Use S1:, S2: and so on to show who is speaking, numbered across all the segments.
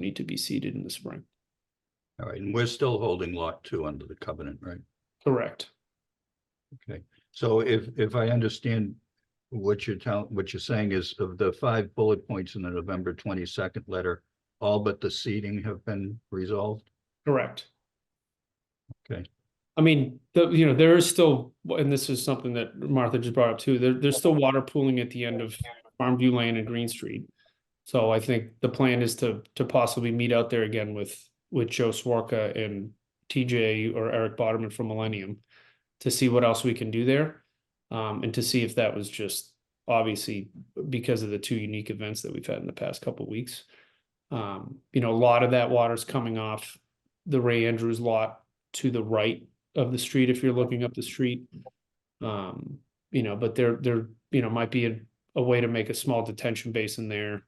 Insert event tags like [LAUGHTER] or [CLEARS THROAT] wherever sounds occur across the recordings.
S1: need to be seeded in the spring.
S2: All right, and we're still holding lot two under the covenant, right?
S1: Correct.
S2: Okay, so if, if I understand what you're telling, what you're saying is of the five bullet points in the November twenty-second letter, all but the seating have been resolved?
S1: Correct.
S2: Okay.
S1: I mean, the, you know, there is still, and this is something that Martha just brought up too, there, there's still water pooling at the end of Farmview Lane and Green Street. So I think the plan is to, to possibly meet out there again with, with Joe Swarka and TJ or Eric Boderman from Millennium to see what else we can do there. Um, and to see if that was just obviously because of the two unique events that we've had in the past couple weeks. Um, you know, a lot of that water's coming off the Ray Andrews lot to the right of the street if you're looking up the street. Um, you know, but there there, you know, might be a, a way to make a small detention basin there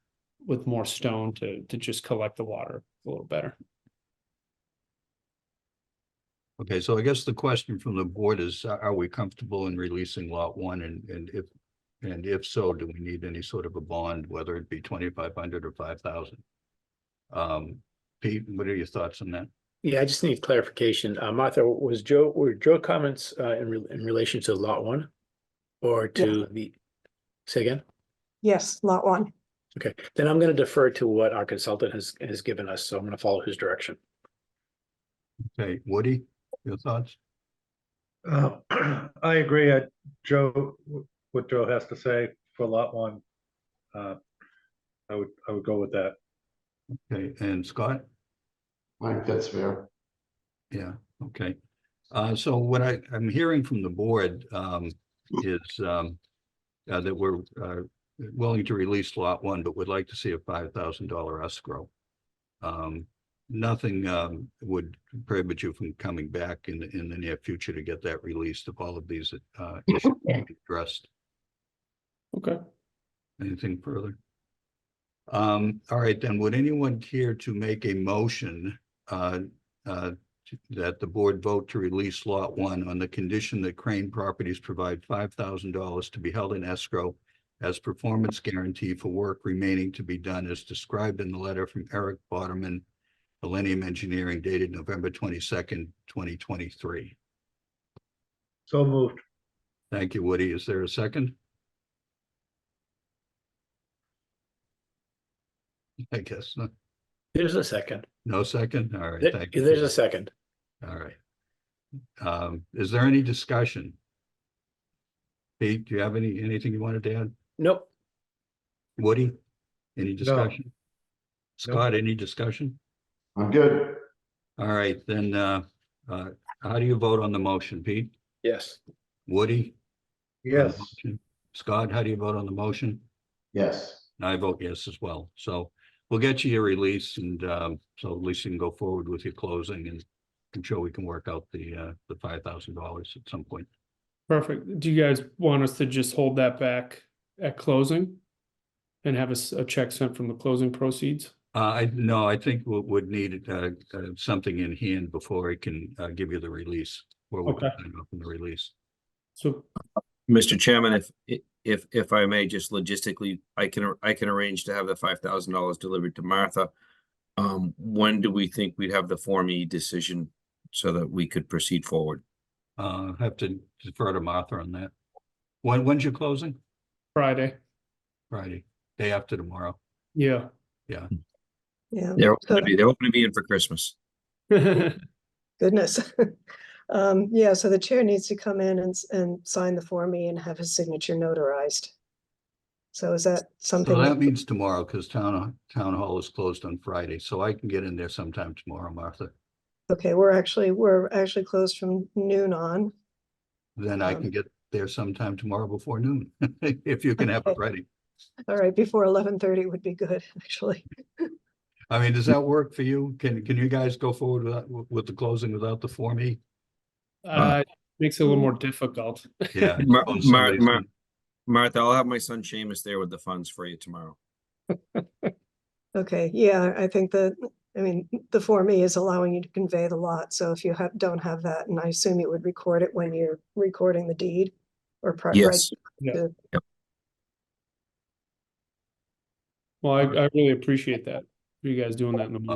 S1: with more stone to to just collect the water a little better.
S2: Okay, so I guess the question from the board is, a- are we comfortable in releasing lot one and, and if, and if so, do we need any sort of a bond, whether it be twenty-five hundred or five thousand? Um, Pete, what are your thoughts on that?
S3: Yeah, I just need clarification. Uh, Martha, was Joe, were Joe comments, uh, in, re- in relation to lot one? Or to the, say again?
S4: Yes, lot one.
S3: Okay, then I'm gonna defer to what our consultant has, has given us, so I'm gonna follow his direction.
S2: Okay, Woody, your thoughts?
S5: Uh, [CLEARS THROAT] I agree, uh, Joe, what Joe has to say for lot one. Uh, I would, I would go with that.
S2: Okay, and Scott?
S6: I think that's fair.
S2: Yeah, okay. Uh, so what I, I'm hearing from the board, um, is, um, uh, that we're, uh, willing to release lot one, but would like to see a five thousand dollar escrow. Um, nothing, um, would prohibit you from coming back in, the in the near future to get that released if all of these, uh, issues can be addressed.
S1: Okay.
S2: Anything further? Um, all right, then, would anyone care to make a motion, uh, uh, to- that the board vote to release lot one on the condition that Crane Properties provide five thousand dollars to be held in escrow as performance guarantee for work remaining to be done as described in the letter from Eric Boderman, Millennium Engineering dated November twenty-second, twenty twenty-three.
S5: So moved.
S2: Thank you, Woody. Is there a second? I guess, not.
S3: There's a second.
S2: no second? All right.
S3: There-
S2: thank you.
S3: there's a second.
S2: All right. Um, is there any discussion? Pete, do you have any, anything you wanted to add?
S3: Nope,
S2: Woody? Any discussion? Scott, any discussion?
S6: I'm good.
S2: All right, then, uh, uh, how do you vote on the motion, Pete?
S3: yes.
S2: Woody? on the
S5: Yes,
S2: motion? Scott, how do you vote on the motion?
S6: Yes,
S2: And I vote yes as well. So we'll get you your release and, um, so at least you can go forward with your closing and I'm sure we can work out the, uh, the five thousand dollars at some point.
S1: Perfect. Do you guys want us to just hold that back at closing? And have a s- a check sent from the closing proceeds?
S2: Uh, I, no, I think we would need, uh, uh, something in hand before I can, uh, give you the release. Where we can
S1: Okay.
S2: sign off on the release.
S1: So,
S7: Mr. Chairman, if, if, if I may, just logistically, I can, I can arrange to have the five thousand dollars delivered to Martha. Um, when do we think we'd have the Form E decision so that we could proceed forward?
S2: Uh, I have to defer to Martha on that. When, when's your closing?
S1: Friday,
S2: Friday, day after tomorrow.
S1: [LAUGHS] yeah.
S4: Yeah,
S7: They're hoping to
S4: So-
S7: be, they're hoping to be in for Christmas.
S1: Uh,
S4: goodness. [LAUGHS] Um, yeah, so the chair needs to come in and, s- and sign the Form E and have his signature notarized. So is that something?
S2: So that
S4: that-
S2: means tomorrow, because town, town hall is closed on Friday, so I can get in there sometime tomorrow, Martha.
S4: Okay, we're actually, we're actually closed from noon on.
S2: Then I can
S4: Um,
S2: get there sometime tomorrow before noon, [LAUGHS] if you can have it
S4: Okay.
S2: ready.
S4: All right, before eleven thirty would be good, [LAUGHS] actually.
S2: I mean, does that work for you? Can, can you guys go forward without, with the closing without the Form
S7: [LAUGHS]
S2: E?
S1: Uh, makes it a little more difficult.
S2: Yeah.
S7: Mar-
S2: Oh,
S7: Mar-
S2: somebody's
S7: Mar-
S2: gonna-
S7: Martha, I'll have my son Seamus there with the funds for you tomorrow.
S4: Okay, yeah, I think that, I mean, the Form E is allowing you to convey the lot, so if you have, don't have that, and I assume you would record it when you're recording the deed or pri- right
S7: Yes.
S1: Well, I, I really appreciate that. you guys doing that in the morning.